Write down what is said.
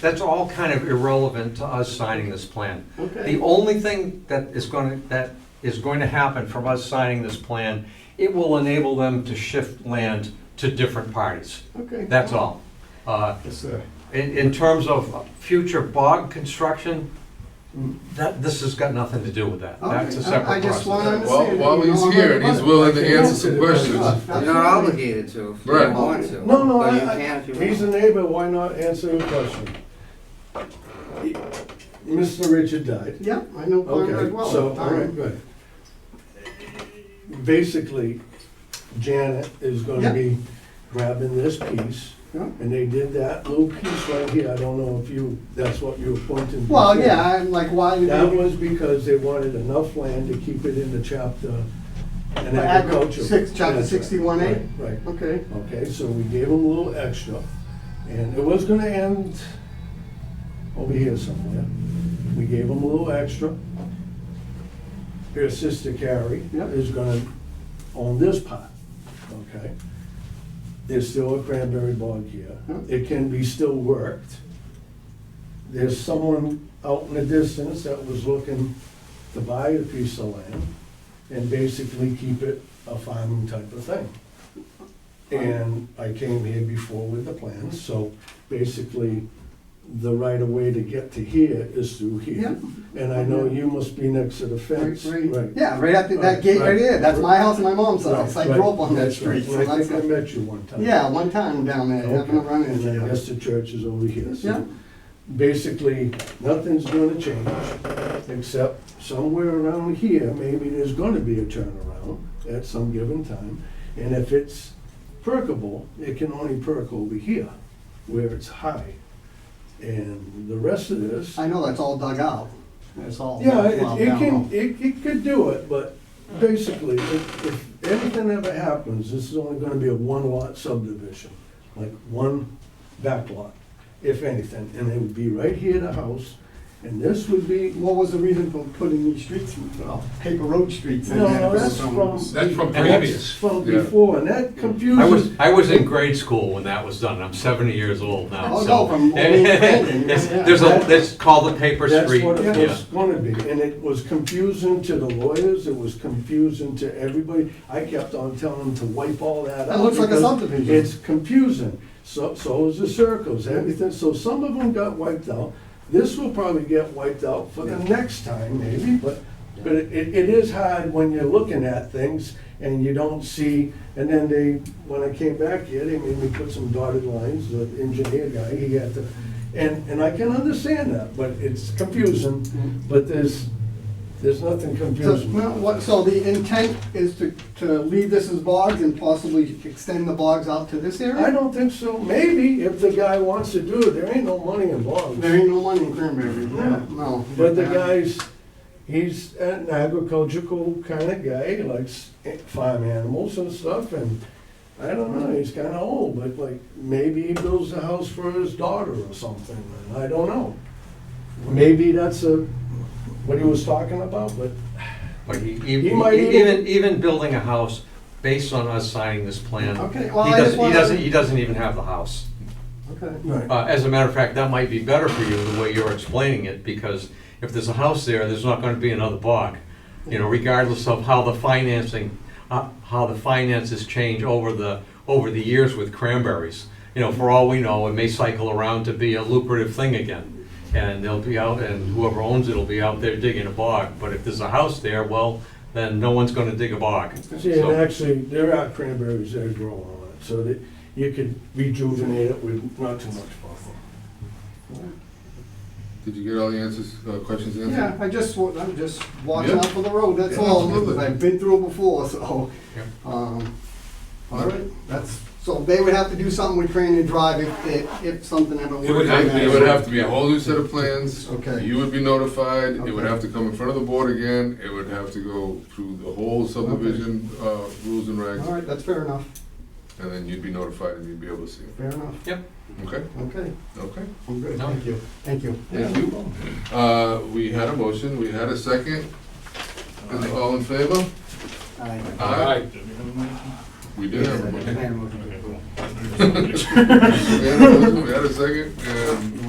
That's all kind of irrelevant to us signing this plan. The Okay, only thing that is going to, that is going to happen from us signing this plan, it will enable them to shift land to different parties. okay. That's all. Uh, Yes, sir. In, in terms of future bog construction, that, this has got nothing to do with that. Okay, That's a I- I separate just process. wanna- While, while he's here, he's willing to answer some questions. You're not obligated to if you Right. don't want to. No, no, but I, you can I, if you he's a want. neighbor, why not answer your question? Mr. Richard died. Yep, I know Conrad Okay, well. so, all right, good. Basically, Janet is Yeah. gonna be grabbing this piece, Yeah. and they did that little piece right here, I don't know if you, that's what you were pointing to. Well, yeah, I'm like, why did That they? was because they wanted enough land to keep it in the chapter, in The agri- agriculture. six- chapter That's right, 61A? right, Right. Okay, Okay, so we gave them a little extra, and it was gonna end over here somewhere. We gave them a little extra. Her sister Carrie Yep. is gonna own this part, okay? There's still a cranberry bog here. Yep. It can be still worked. There's someone out in the distance that was looking to buy a piece of land and basically keep it a farming type of thing. And I came here before with the plans, so basically, the right of way to get to here is through yeah, here. And I know you must be next to the fence. right, right, yeah, right after that Right, gate right right. there, that's my house and my mom's Right, house, I right. grew up on that That's right. street. And I think I so I- met you one time. Yeah, one time down there, Okay. happened to run into And I you. guess the church is over here. so Yeah. Basically, nothing's gonna change, except somewhere around here, maybe there's gonna be a turnaround at some given time. And if it's perkable, it can only perk over here, where it's high. And the rest of this. I know that's all dug out, that's all. Yeah, plowed it, it down. can, it, it could do it, but basically, if, if anything ever happens, this is only gonna be a one lot subdivision, like one back lot, if anything, and it would be right here, the house, and this would be, What was the reason for putting these streets, well, paper road streets in no, there? no, that's So- from. That's from and that's previous. From Yeah. before, and that I was, confuses, I was in grade school when that was done. I'm 70 years old now, Oh, so. no, from old Brandon, There's yeah. there's a, that's called the paper that's street. what it yeah. was gonna be, and it was confusing to the lawyers, it was confusing to everybody, I kept on telling them to wipe all that out. That looks like a because subdivision. It's confusing. So, so is the circles, everything. So some of them got wiped out. This will probably get wiped out for the next time maybe, but, but it, it is hard when you're looking at things and you don't see, and then they, when I came back here, they made me put some dotted lines, the engineer guy, he had to, and, and I can understand that, but it's confusing, Mm-hmm. but there's, there's nothing So, confusing. well, what- so the intent is to, to leave this as bogs and possibly extend the bogs out to this area? I don't think so. Maybe if the guy wants to do it, there ain't no money involved. There ain't no money in Cranberry, no, no. But the guy's, he's an agricultural kind of guy, He likes farm animals and stuff, and I don't know, he's kind of old, but like, maybe he builds a house for his daughter or something, and I don't know. Maybe that's a, what he was talking about, but But he, He might even, even, even building a house based on us signing this plan, he Okay, well, I just doesn't, he wanted. doesn't, he doesn't even have the house. Okay, Right. Uh, as a matter of fact, that might be better for you, the way you're explaining it, because if there's a house there, there's not gonna be another bog. You know, regardless of how the financing, uh, how the finances change over the, over the years with cranberries. You know, for all we know, it may cycle around to be a lucrative thing again. And they'll be out, and whoever owns it'll be out there digging a bog. But if there's a house there, well, then no one's gonna dig a bog. See, and So- actually, there are cranberries that grow on it, so that you could rejuvenate it with not too much problem. Did you get all the answers, uh, questions answered? yeah, I just, wa- I'm just watching Yeah. out for the road, that's Yeah, all, absolutely. because I've been through it before, so. Yeah. um, All Yeah. right, that's, so they would have to do something with Crane and Drive if, if, if something ever. It would have, it would have to be a whole new set of plans. Okay. You would be notified, it would Okay. have to come in front of the board again, it would have to go through the whole subdivision, uh, rules and All regs, right, that's fair enough, and then you'd be notified and you'd be able to see it. fair enough, Okay, okay, okay. I'm good, No. thank you, thank you. Thank you. Uh, we had a motion, we had a second. Is it all in favor? Aye. Aye. We did have a motion. Plan motion. We had a motion, we had a second, and